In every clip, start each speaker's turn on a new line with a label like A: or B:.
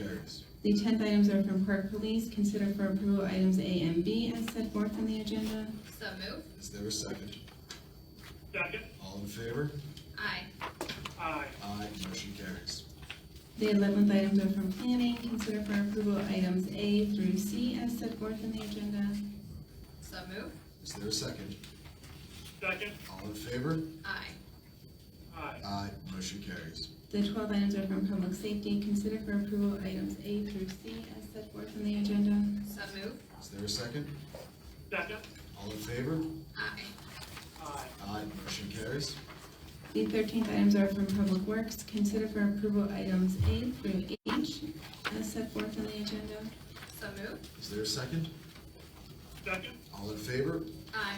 A: carries.
B: The tenth items are from Park Police. Consider for approval items A and B as set forth on the agenda.
C: So move.
A: Is there a second?
D: Second,
A: All in favor?
C: Aye.
D: aye.
A: Aye, motion carries.
B: The eleventh items are from Planning. Consider for approval items A through C as set forth in the agenda.
C: So move.
A: Is there a second?
D: Second,
A: All in favor?
C: Aye.
D: aye.
A: Aye, motion carries.
B: The twelve items are from Public Safety. Consider for approval items A through C as set forth in the agenda.
C: So move.
A: Is there a second?
D: Second,
A: All in favor?
C: Aye.
D: aye.
A: Aye, motion carries.
B: The thirteenth items are from Public Works. Consider for approval items A through H as set forth on the agenda.
C: So move.
A: Is there a second?
D: Second,
A: All in favor?
C: Aye.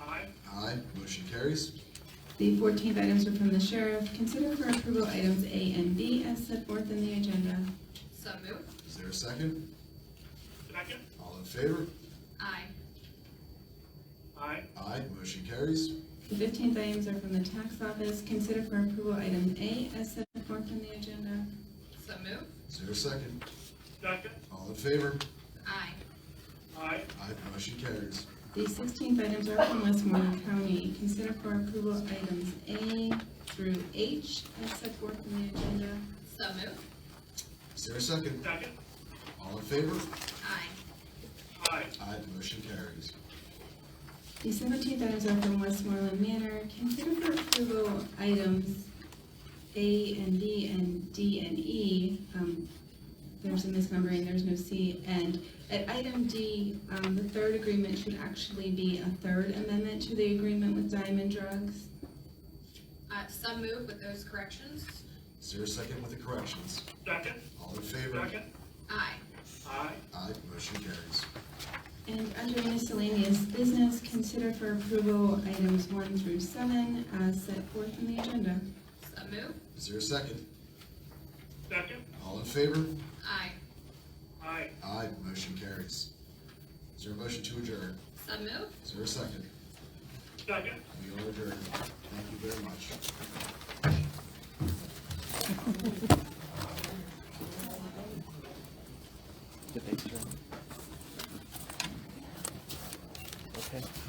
D: aye.
A: Aye, motion carries.
B: The fourteenth items are from the Sheriff. Consider for approval items A and B as set forth in the agenda.
C: So move.
A: Is there a second?
D: Second,
A: All in favor?
C: Aye.
D: aye.
A: Aye, motion carries.
B: The fifteenth items are from the Tax Office. Consider for approval item A as set forth in the agenda.
C: So move.
A: Is there a second?
D: Second,
A: All in favor?
C: Aye.
D: aye.
A: Aye, motion carries.
B: The sixteenth items are from Westmoreland County. Consider for approval items A through H as set forth in the agenda.
C: So move.
A: Is there a second?
D: Second,
A: All in favor?
C: Aye.
D: aye.
A: Aye, motion carries.
B: The seventeenth items are from Westmoreland Manor. Consider for approval items A and B and D and E. Um, There's a misnumbering, there's no C. And at item D, um, the third agreement should actually be a third amendment to the agreement with Diamond Drugs.
C: Uh, so move with those corrections.
A: Is there a second with the corrections?
D: Second,
A: All in favor?
D: second,
C: Aye.
D: aye.
A: Aye, motion carries.
B: And under miscellaneous business, consider for approval items one through seven as set forth in the agenda.
C: So move.
A: Is there a second?
D: Second,
A: All in favor?
C: Aye.
D: aye.
A: Aye, motion carries. Is there a motion to adjourn?
C: So move.
A: Is there a second?
D: Second,
A: We are adjourned. Thank you very much.
E: the picture. Okay.